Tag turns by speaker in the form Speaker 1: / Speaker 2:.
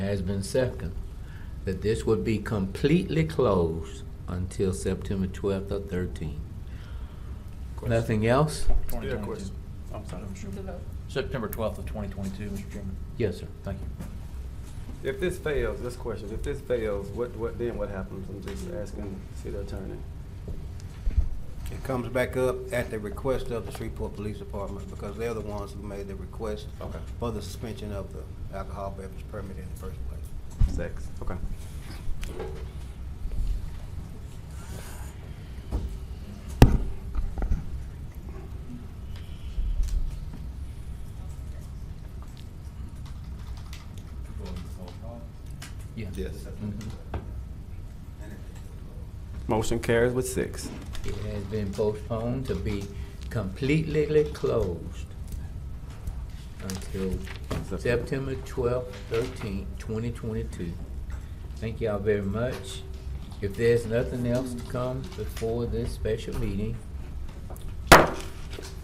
Speaker 1: has been seconded, that this would be completely closed until September twelfth or thirteenth. Nothing else?
Speaker 2: Yeah,
Speaker 3: 2022.
Speaker 2: question.
Speaker 3: I'm sorry, Mr.
Speaker 4: The
Speaker 3: Chairman.
Speaker 4: vote.
Speaker 3: September 12th of 2022, Mr. Chairman.
Speaker 1: Yes, sir.
Speaker 3: Thank you.
Speaker 2: If this fails, this question, if this fails, what, what, then what happens? I'm just asking city attorney.
Speaker 5: It comes back up at the request of the Shreveport Police Department because they're the ones who made the request
Speaker 2: Okay.
Speaker 5: for the suspension of the alcohol beverage permit in the first place.
Speaker 2: Six. Okay.
Speaker 1: Yeah.
Speaker 2: Yes.
Speaker 1: Mhm.
Speaker 2: Motion carries with six.
Speaker 1: It has been postponed to be completely closed until September twelfth, thirteenth, twenty twenty-two. Thank y'all very much. If there's nothing else to come before this special meeting,